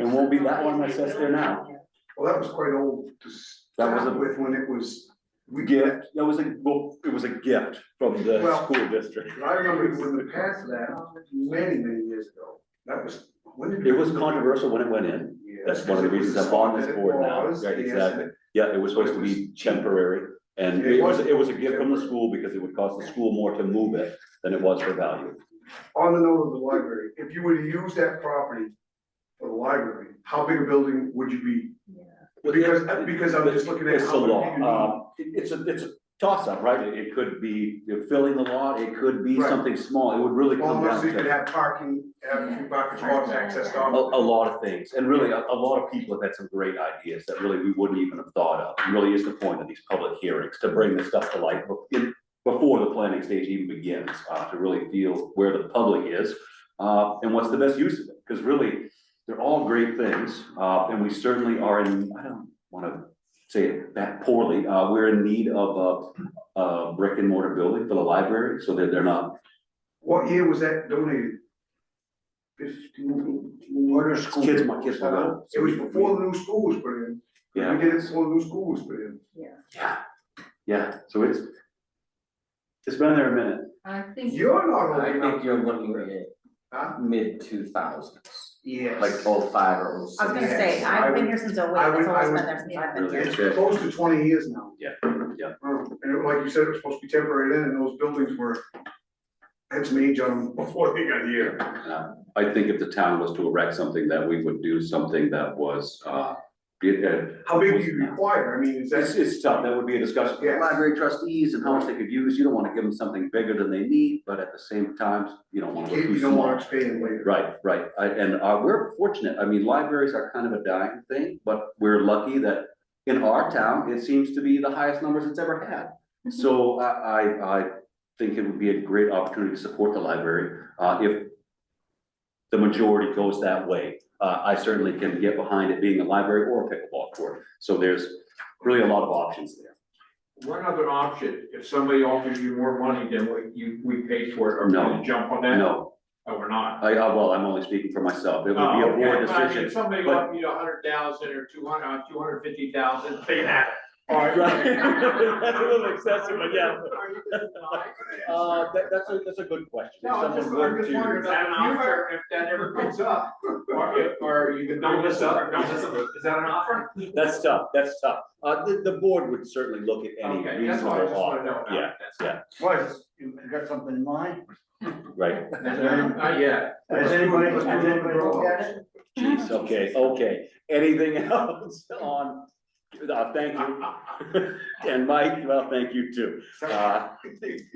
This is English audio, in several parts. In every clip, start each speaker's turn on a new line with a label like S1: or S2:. S1: It won't be that one that sits there now.
S2: Well, that was quite old to
S1: That was a-
S2: start with when it was. We
S1: Gift, that was a, well, it was a gift from the
S2: Well-
S1: school district.
S2: I remember when we passed that many, many years ago. That was, when did?
S1: It was controversial when it went in.
S2: Yeah,
S1: That's one of the
S2: because it
S1: reasons I'm
S2: was
S1: on
S2: something
S1: this
S2: that
S1: board now,
S2: was,
S1: right,
S2: yes,
S1: exactly. Yeah, it was supposed to be temporary, and
S2: It
S1: it was,
S2: was
S1: it was a gift from the
S2: temporary.
S1: school because it would cost the school more to move it than it was for value.
S2: On the note of the library, if you were to use that property for the library, how big a building would you be? Because, because I'm just looking at
S1: It's a
S2: how
S1: law,
S2: many you need.
S1: uh, it- it's a, it's a toss-up, right? It- It could be filling the law, it could be
S2: Right.
S1: something small, it would really
S2: Well,
S1: come down
S2: unless you could
S1: to
S2: have parking, have a few parking spots accessed
S1: a,
S2: on.
S1: a lot of things, and really, a, a lot of people have had some great ideas that really we wouldn't even have thought of. It Really is the point of these public hearings, to bring this stuff to light bef- in- before the planning stage even begins, uh, to really feel where the public is, uh, and what's the best use of it, because really, they're all great things, uh, and we certainly are in, I don't wanna say it that poorly, uh, we're in need of a, a brick and mortar building for the library, so that they're not,
S2: What year was that donated? Fifteen, what are school?
S1: Kids, my kids were little.
S2: It was before the new school was put in. We
S1: yeah,
S2: did it before the new school was put in.
S1: yeah, yeah, so it's, it's been there a minute.
S3: I think.
S2: You're not old
S4: I think
S2: enough.
S4: you're looking
S2: Huh?
S4: at mid two thousands,
S2: Yes.
S4: like oh five or oh six.
S5: I was gonna say,
S2: Yes, I
S5: I've been
S2: would-
S5: here since oh
S2: I
S5: eight,
S2: would-
S5: that's
S2: I
S5: always
S2: would-
S5: been there since I've been
S1: Really?
S5: here.
S2: It's close to twenty years now.
S1: Yeah, yeah.
S2: Oh, And it- like you said, it was supposed to be temporary then, and those buildings were, had some age on them before they got here.
S1: I think if the town was to erect something, that we would do something that was, uh, it, uh,
S2: How big do you require? I mean, is
S1: It's,
S2: that,
S1: it's tough, that would be a discussion for the
S2: Yes.
S1: library trustees and how much they could use, you don't wanna give them something bigger than they need, but at the same time, you don't
S2: you
S1: wanna
S2: can't,
S1: go too
S2: you don't want
S1: small.
S2: to expand later.
S1: Right, right, I, and, uh, we're fortunate, I mean, libraries are kind of a dying thing, but we're lucky that in our town, it seems to be the highest numbers it's ever had. So I, I, I think it would be a great opportunity to support the library, uh, if the majority goes that way. Uh, I certainly can get behind it being a library or a pickleball court, so there's really a lot of options there.
S6: One other option, if somebody offers you more money than what you, we paid for it, are we
S1: No.
S6: gonna jump on that?
S1: No,
S6: Oh, we're not.
S1: I, uh, well, I'm only speaking for myself, it would be
S6: Oh,
S1: a
S6: okay.
S1: board
S6: But I mean, If
S1: decision.
S6: somebody
S1: but-
S6: offered you a hundred thousand or two hundred, two hundred fifty thousand, say that.
S1: Right. That's a little excessive, but yeah.
S6: Are you gonna deny?
S1: Uh, that, that's a, that's a good question. If
S6: No, I'm just,
S1: someone were
S6: I'm just
S1: to-
S6: wondering about an offer, if that ever comes up, or if, or you could bring this up, is that an offer?
S1: That's tough, that's tough. Uh, the, the board would certainly look at any
S6: Okay, that's what I just
S1: reasonable
S6: wanna
S1: offer,
S6: know about.
S1: yeah,
S6: That's-
S1: yeah.
S7: What, you you got something in mind?
S1: right?
S6: Not yet.
S7: Has
S2: Let's do it.
S7: anybody,
S2: Let's
S7: has
S2: do it.
S7: anybody looked at it?
S1: Jeez, okay, okay. Anything else on, uh, thank you. And Mike, well, thank you too. Uh,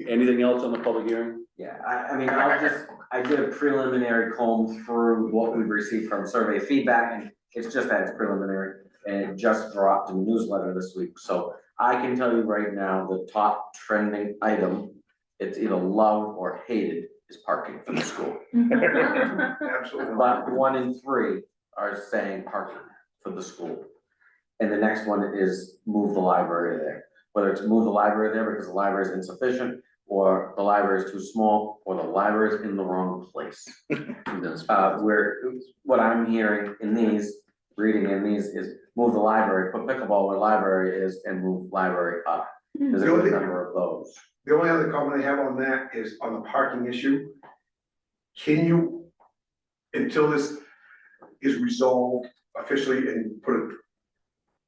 S1: anything else on the public hearing?
S4: Yeah, I, I mean, I'll just, I did a preliminary comb through what we've received from survey feedback, and it's just that it's preliminary, and it just dropped in the newsletter this week, so I can tell you right now, the top trending item, it's either loved or hated, is parking for the school.
S2: Absolutely.
S4: But one in three are saying parking for the school. And the next one is move the library there, whether it's move the library there because the library is insufficient, or the library is too small, or the library is in the wrong place. Uh, where, what I'm hearing in these, reading in these is move the library, put pickleball where library is and move library up. There's a good number of those.
S2: The only other comment I have on that is on the parking issue. Can you, until this is resolved officially and put a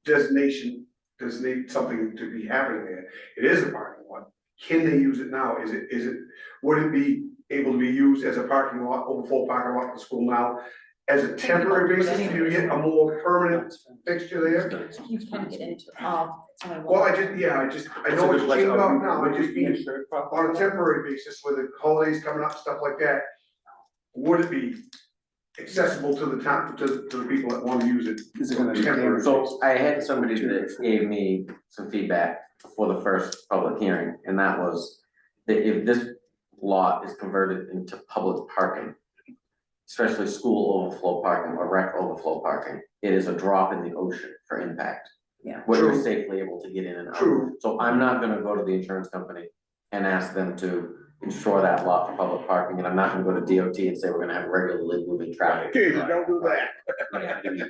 S2: designation, designate something to be happening there, it is a parking lot. Can they use it now? Is it, is it, would it be able to be used as a parking lot, overflow parking lot for school now? As a temporary basis, do you get a more permanent fixture there?
S5: You can get into, oh, it's only one.
S2: Well, I just, yeah, I just, I know it's changed
S1: Oh, um,
S2: off now, I just mean, on a temporary basis with the holidays coming up, stuff like that, would it be accessible to the town, to, to the people that wanna use it?
S7: Is it gonna be
S2: Temporary.
S4: So I had somebody that gave me some feedback before the first public hearing, and that was that if this lot is converted into public parking, especially school overflow parking or rec overflow parking, it is a drop in the ocean for impact.
S5: Yeah.
S4: Where you're
S2: True.
S4: safely able to get in and out.
S2: True,
S4: So I'm not gonna go to the insurance company and ask them to ensure that lot for public parking, and I'm not gonna go to DOT and say we're gonna have regularly moving traffic.
S3: Jesus, don't do that.
S4: Yeah.